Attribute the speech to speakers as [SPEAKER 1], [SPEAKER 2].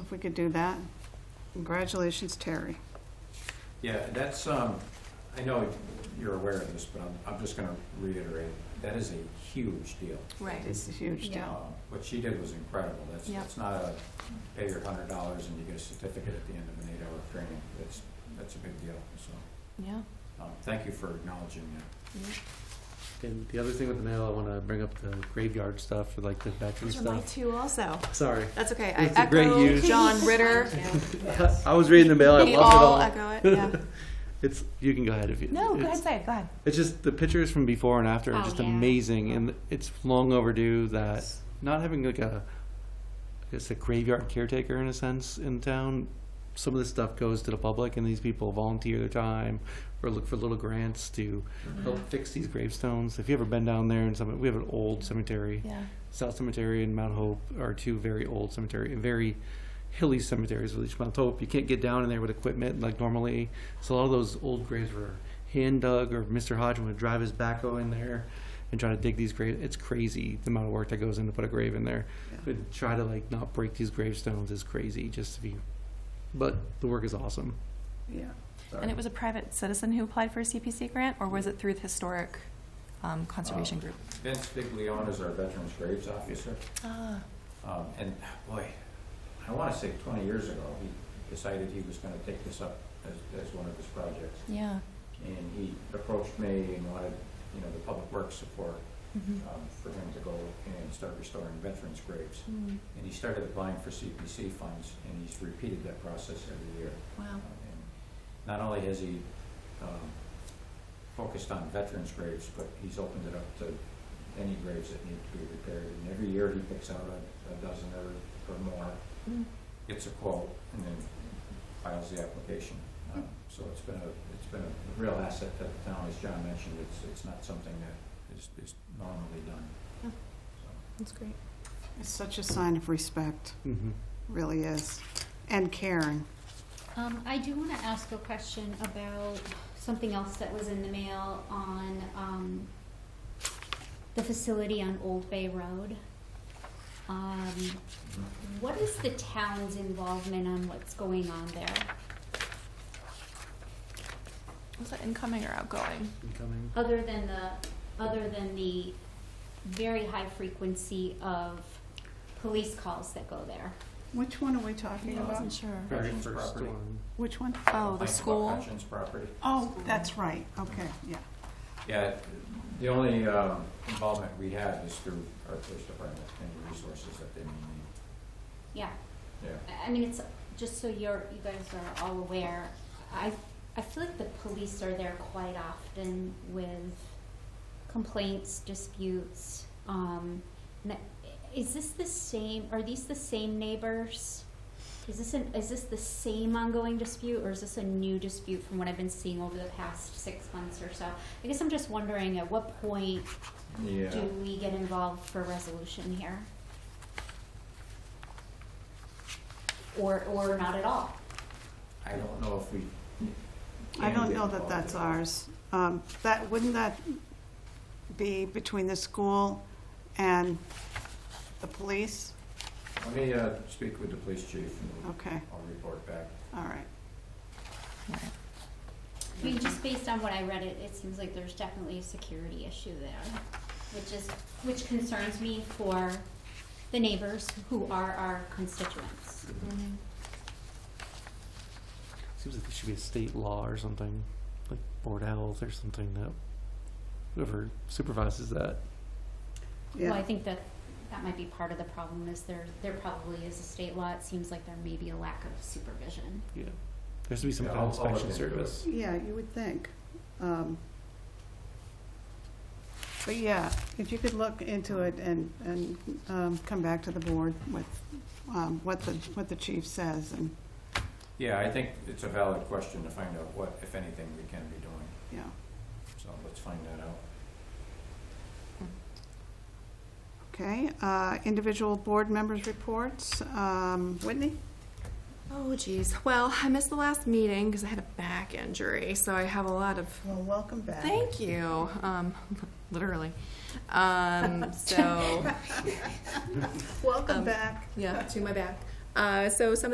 [SPEAKER 1] if we could do that. Congratulations, Terry.
[SPEAKER 2] Yeah, that's, um, I know you're aware of this, but I'm, I'm just gonna reiterate, that is a huge deal.
[SPEAKER 3] Right.
[SPEAKER 1] It's a huge
[SPEAKER 3] Yeah.
[SPEAKER 1] deal.
[SPEAKER 2] Um, What she did was incredible, that's,
[SPEAKER 3] Yep.
[SPEAKER 2] that's not a pay your hundred dollars and you get a certificate at the end of an eight-hour training, that's, that's a big deal, so,
[SPEAKER 3] Yeah.
[SPEAKER 2] um, thank you for acknowledging that.
[SPEAKER 4] And the other thing with the mail, I want to bring up the graveyard stuff for like the veteran
[SPEAKER 3] Those are my
[SPEAKER 4] stuff.
[SPEAKER 3] two also.
[SPEAKER 4] Sorry.
[SPEAKER 3] That's okay. I
[SPEAKER 4] It's a great
[SPEAKER 3] echo
[SPEAKER 4] use.
[SPEAKER 3] John Ritter.
[SPEAKER 4] I was reading the mail. I
[SPEAKER 3] We
[SPEAKER 4] lost it all.
[SPEAKER 3] all echo it, yeah.
[SPEAKER 4] it's you can go ahead if you.
[SPEAKER 5] No, go
[SPEAKER 4] it's,
[SPEAKER 5] ahead, say it. Go ahead.
[SPEAKER 4] It's just the pictures from before and after are
[SPEAKER 5] Oh,
[SPEAKER 4] just
[SPEAKER 5] yeah.
[SPEAKER 4] amazing, and it's long overdue that not having like a, I guess a graveyard caretaker in a sense in town. Some of this stuff goes to the public, and these people volunteer their time or look for little grants to
[SPEAKER 5] Mm-hmm.
[SPEAKER 4] help fix these gravestones. If you ever been down there, and some we have an old cemetery.
[SPEAKER 3] Yeah.
[SPEAKER 4] South Cemetery and Mount Hope are two very old cemetery, very hilly cemeteries with each Mount Hope. You can't get down in there with equipment like normally. So a lot of those old graves were hand dug or Mr. Hodgman would drive his backhoe in there and try to dig these graves. It's crazy the amount of work that goes in to put a grave in there.
[SPEAKER 1] Yeah.
[SPEAKER 4] But try to like not break these gravestones is crazy just to be but the work is awesome.
[SPEAKER 1] Yeah.
[SPEAKER 3] And it was a private citizen who applied for a CPC grant, or was it through the historic um, conservation
[SPEAKER 4] Ah.
[SPEAKER 2] Um,
[SPEAKER 3] group?
[SPEAKER 2] Vince Biglione is our Veterans Graves Officer,
[SPEAKER 3] Ah.
[SPEAKER 2] um, and boy, I wanna say twenty years ago, he decided he was gonna take this up as, as one of his projects.
[SPEAKER 3] Yeah.
[SPEAKER 2] and he approached me and wanted, you know, the public works support
[SPEAKER 3] Mhm.
[SPEAKER 2] um, for him to go and start restoring veterans' graves.
[SPEAKER 3] Mm,
[SPEAKER 2] And he started applying for CPC funds, and he's repeated that process every year.
[SPEAKER 3] Wow.
[SPEAKER 2] Um, and Not only has he um, focused on veterans' graves, but he's opened it up to any graves that need to be repaired. And every year, he picks out a a dozen or, or more,
[SPEAKER 3] Mm.
[SPEAKER 2] gets a quote, and then files the application. Um, So it's been a, it's been a real asset to the town, as John mentioned, it's, it's not something that is, is normally done.
[SPEAKER 3] Yeah.
[SPEAKER 2] So,
[SPEAKER 3] That's great.
[SPEAKER 1] It's such a sign of respect,
[SPEAKER 4] Mm-hmm.
[SPEAKER 1] really is. And caring.
[SPEAKER 5] Um, I do want to ask a question about something else that was in the mail on, um, the facility on Old Bay Road. Um, what is the town's involvement on what's going on there?
[SPEAKER 3] Was that incoming or outgoing?
[SPEAKER 4] Incoming.
[SPEAKER 5] Other than the, other than the very high frequency of police calls that go there?
[SPEAKER 1] Which one are we talking
[SPEAKER 3] I wasn't
[SPEAKER 1] about?
[SPEAKER 3] sure.
[SPEAKER 4] Very
[SPEAKER 2] Veterans'
[SPEAKER 4] first
[SPEAKER 2] property.
[SPEAKER 4] one.
[SPEAKER 1] Which one?
[SPEAKER 3] Oh, the
[SPEAKER 2] Complaints about
[SPEAKER 3] school.
[SPEAKER 2] Hutchins property.
[SPEAKER 1] Oh, that's right, okay, yeah.
[SPEAKER 2] Yeah, the only um, involvement we have is through our police department and the resources that they may need.
[SPEAKER 5] Yeah.
[SPEAKER 2] Yeah.
[SPEAKER 5] I- I mean, it's, just so you're, you guys are all aware, I, I feel like the police are there quite often with complaints, disputes, um, and I- is this the same, are these the same neighbors? Is this an, is this the same ongoing dispute, or is this a new dispute from what I've been seeing over the past six months or so? I guess I'm just wondering, at what point
[SPEAKER 2] Yeah,
[SPEAKER 5] do we get involved for resolution here? Or, or not at all?
[SPEAKER 2] I don't know if we.
[SPEAKER 1] I
[SPEAKER 2] can
[SPEAKER 1] don't
[SPEAKER 2] get
[SPEAKER 1] know that
[SPEAKER 2] involved
[SPEAKER 1] that's
[SPEAKER 2] in
[SPEAKER 1] ours. Um, That, wouldn't that be between the school and the police?
[SPEAKER 2] Let me uh, speak with the police chief and
[SPEAKER 1] Okay,
[SPEAKER 2] I'll report back.
[SPEAKER 1] all right.
[SPEAKER 5] I mean, just based on what I read, it, it seems like there's definitely a security issue there, which is, which concerns me for the neighbors who are our constituents.
[SPEAKER 4] Seems like there should be a state law or something, like board of health or something that whoever supervises that.
[SPEAKER 5] Well, I
[SPEAKER 1] Yeah,
[SPEAKER 5] think that, that might be part of the problem is there, there probably is a state law, it seems like there may be a lack of supervision.
[SPEAKER 4] Yeah, there has to be some
[SPEAKER 2] Yeah,
[SPEAKER 4] kind of
[SPEAKER 2] I'll- I'll look
[SPEAKER 4] inspection
[SPEAKER 2] into it.
[SPEAKER 4] service.
[SPEAKER 1] yeah, you would think. Um, But yeah, if you could look into it and, and um, come back to the board with um, what the, what the chief says and,
[SPEAKER 2] Yeah, I think it's a valid question to find out what, if anything, we can be doing.
[SPEAKER 1] you know,
[SPEAKER 2] So let's find that out.
[SPEAKER 1] okay? uh, Individual board members' reports. Um, Whitney?
[SPEAKER 3] Oh, geez. Well, I missed the last meeting because I had a back injury, so I have a lot of
[SPEAKER 1] Well, welcome back.
[SPEAKER 3] Thank you. Um, literally. Um, so
[SPEAKER 1] Welcome
[SPEAKER 3] Um,
[SPEAKER 1] back.
[SPEAKER 3] yeah, to my back. Uh, so some